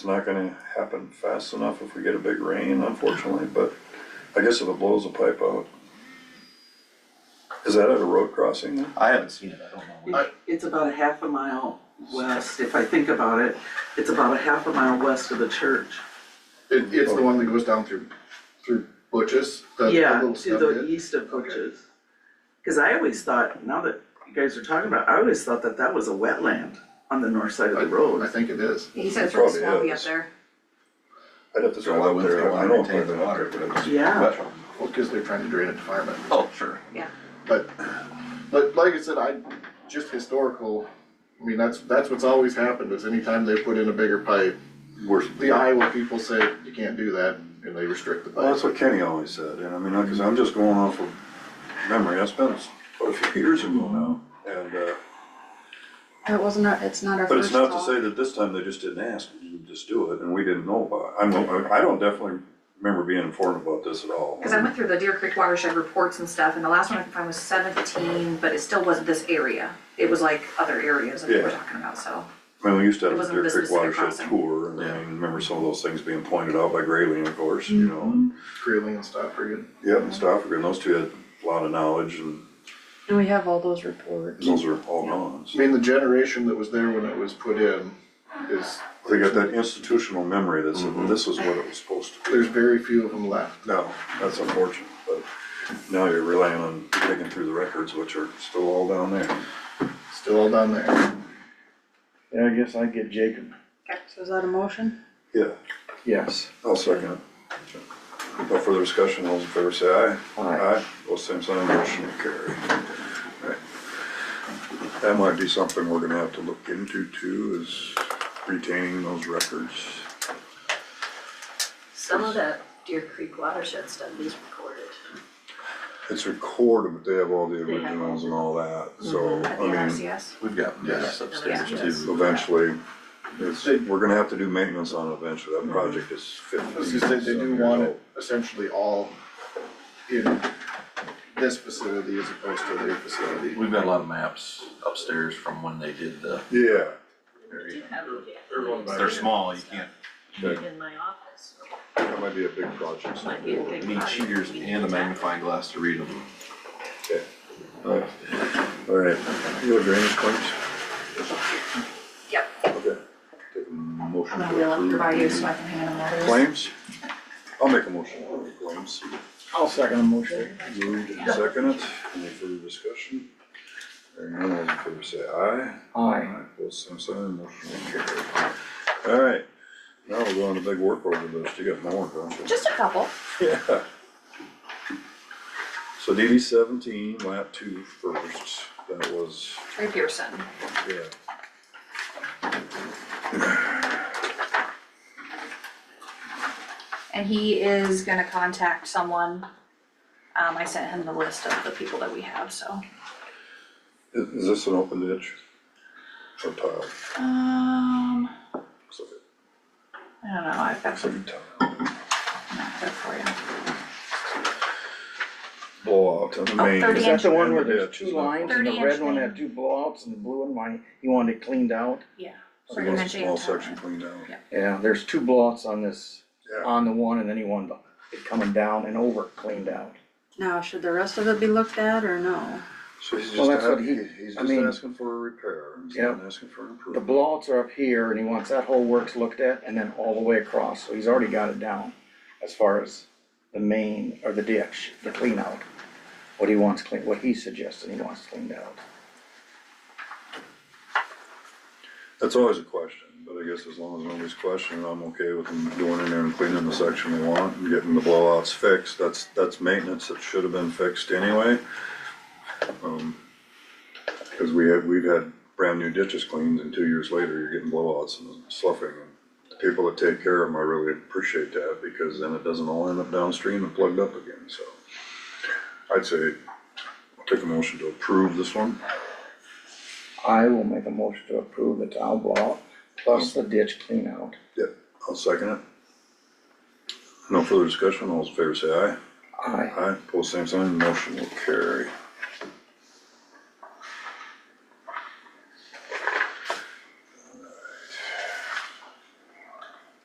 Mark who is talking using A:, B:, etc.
A: It's not gonna happen fast enough if we get a big rain, unfortunately, but I guess if it blows the pipe out. Is that at a road crossing then?
B: I haven't seen it, I don't know. where-
C: It- It's about a half a mile west, if I think about it, it's about a half a mile west of the church.
D: It, it's the one that goes down through, through Butch's, the the
C: Yeah,
D: little
C: to
D: stub
C: the
D: bit.
C: east of
D: Okay.
C: Butch's. Cause I always thought, now that you guys are talking about, I always thought that that was a wetland on the north side of
D: I,
C: the
D: I
C: road.
D: think it is.
E: He said it's really
A: Probably
E: swampy up
A: is.
E: there.
A: I'd have to
B: So
A: drive
B: why
A: up
B: wouldn't they
A: there, I
B: wanna
A: know.
B: retain the water, but it's.
C: Yeah.
B: but-
D: Well, cause they're trying to drain it to Fireman.
B: Oh, sure.
D: But, but like I said, I, just historical, I mean, that's, that's what's always happened, is anytime they put in a bigger pipe,
A: We're,
D: the Iowa people say, you can't do that, and they restrict the
A: Well, that's
D: pipe.
A: what Kenny always said, and I mean, because I'm just going off of memory, that's been quite a few years ago now. And, uh,
E: It wasn't, our- it's not our
A: but it's
E: first
A: not to say
E: call.
A: that this time they just didn't ask, you just do it, and we didn't know about it. I don't, I don't definitely remember being informed about this at all.
E: Cause I went through the Deer Creek watershed reports and stuff, and the last one I could find was seventeen, but it still wasn't this area. It was like other areas that we were
A: Yeah.
E: talking about, so.
A: I mean, we used to
E: It
A: have a
E: wasn't
A: Deer
E: the
A: Creek
E: specific
A: watershed
E: crossing.
A: tour, and I remember some of those things being pointed out by Grayling, of course, you know. and-
E: Mm-hmm.
D: Greeley and Stockford.
A: Yep, and Stoffer, and those two had a lot of knowledge, and
F: And we have all those reports.
A: those are all gone.
D: I
A: so.
D: mean, the generation that was there when it was put in is,
A: They got that institutional memory that
E: Mm-hmm.
A: said, this is what it was supposed to be.
D: there's very few of them left.
A: No, that's unfortunate, but now you're relying on digging through the records, which are still all down there.
D: Still all down there.
G: Yeah, I guess I'd get Jacob.
F: So is that a motion?
A: Yeah,
G: Yes.
A: I'll second it. No further discussion, all those in favor say aye.
G: Aye.
A: Aye, both same sign, motion will carry. Right. That might be something we're gonna have to look into too, is retaining those records.
H: Some of that Deer Creek watershed stuff is recorded.
A: It's recorded, but they have all the
H: They have all Mm-hmm.
A: originals and all that, so,
E: At the
A: I mean,
E: NRCS,
B: We've got this upstairs
H: Yeah.
B: too.
A: eventually, it's, we're gonna have to do maintenance on it eventually,
H: Mm-hmm.
A: that project is fifteen.
D: I was gonna say, they do
A: years
D: want
A: old.
D: it essentially all in this facility as opposed to their facility.
B: We've got a lot of maps upstairs from when they did the,
A: Yeah,
B: they're small, you can't,
H: In my office,
A: that might be a big project. so
H: might be a
A: we'll-
H: big
B: you need
H: project.
B: cheaters and a magnifying glass to read them.
A: All right, you have drainage claims?
E: Yep.
A: Okay. Take a motion
E: I'm gonna
A: to
E: wheel up
A: approve
E: by you
A: the
E: so I can hand them letters.
A: Claims? I'll make a motion for the claims.
G: I'll second the motion.
A: Moved and seconded, any further discussion? Hearing none, all in favor say aye.
G: Aye.
A: Both same sign, motion will carry. All right, now we're going to big work order list, you got more, don't you?
E: Just a couple.
A: Yeah. So DD seventeen, lap two first, that was,
E: Trey Pearson,
A: yeah.
E: and he is gonna contact someone. Um, I sent him the list of the people that we have, so.
A: Is, is this an open ditch? Or tile?
E: Um,
A: Looks like it-
E: I don't know, I've got
A: looks like
E: some,
A: a tile.
E: not there for you.
A: Blowout on the
E: Oh,
A: main.
E: 30
G: Is
E: inch.
G: that the one where
A: And the
G: there's
A: ditch
G: two
A: is not-
G: lines and
E: 30
G: the
E: inch
G: red one
E: thing.
G: had two blowouts and the blue one, why, you wanted it cleaned out?
E: Yeah.
A: So
E: Pretty
A: there's a
E: much eight
A: Small
E: tile.
A: section cleaned out.
E: Yeah.
G: Yeah, there's two blowouts on this,
A: Yeah,
G: on the one and then you want it coming down and over cleaned out.
F: Now, should the rest of it be looked at or no?
A: so he's
G: Well,
A: just,
G: that's what
A: a-
G: he-
A: Oh, he- he's
G: I
A: just
G: mean-
A: asking for a repair, he's
G: Yeah.
A: not asking for an
G: The
A: improvement.
G: blowouts are up here and he wants that whole works looked at and then all the way across, so he's already got it down as far as the main or the ditch, the clean out. What he wants clean, what he suggested he wants cleaned out.
A: That's always a question, but I guess as long as nobody's questioning, I'm okay with them going in there and cleaning the section they want and getting the blowouts fixed, that's, that's maintenance that should have been fixed anyway. Um, Cause we had, we've had brand new ditches cleaned and two years later, you're getting blowouts and sloughing. and the People that take care of them, I really appreciate that, because then it doesn't all end up downstream and plugged up again, so. I'd say, take a motion to approve this one.
G: I will make a motion to approve the tile blowout plus the ditch clean out.
A: Yep, I'll second it. No further discussion, all those in favor say aye.
G: Aye.
A: Aye, pull same sign, motion will carry.